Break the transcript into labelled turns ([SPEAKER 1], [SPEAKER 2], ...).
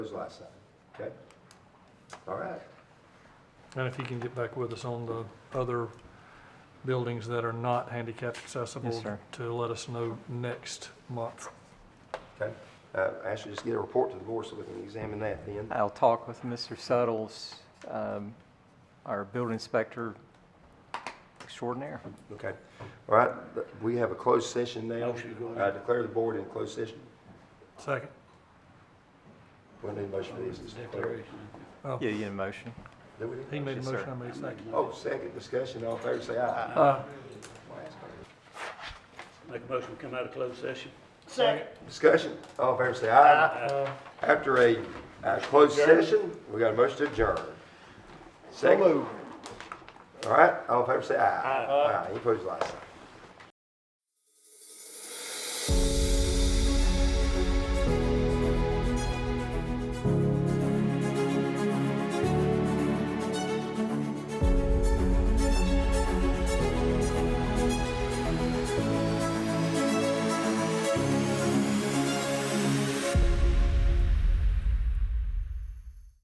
[SPEAKER 1] was last time, okay? All right,
[SPEAKER 2] And if you can get back with us on the other buildings that are not handicapped accessible.
[SPEAKER 3] Yes, sir.
[SPEAKER 2] To let us know next month.
[SPEAKER 1] okay. Uh, Ashley, just get a report to the board so we can examine that then.
[SPEAKER 3] I'll talk with Mr. Suddles, um, our building inspector extraordinaire.
[SPEAKER 1] Okay, all right, th- we have a closed session now.
[SPEAKER 4] Motion to go
[SPEAKER 1] I declare the board in closed session.
[SPEAKER 2] Second.
[SPEAKER 1] We need a motion for this.
[SPEAKER 4] Declaration.
[SPEAKER 2] Oh,
[SPEAKER 3] Yeah, you need a motion?
[SPEAKER 1] Do we need
[SPEAKER 2] He made a
[SPEAKER 1] Yes, sir.
[SPEAKER 2] motion, I made a second.
[SPEAKER 1] Oh, second discussion, all in favor, say aye.
[SPEAKER 2] Uh,
[SPEAKER 4] Make a motion, we come out of closed session.
[SPEAKER 1] Discussion, all in favor, say aye. After a uh, closed session, we got a motion to adjourn. Second. All right, all in favor, say aye. Aye. Any opposed, like sign.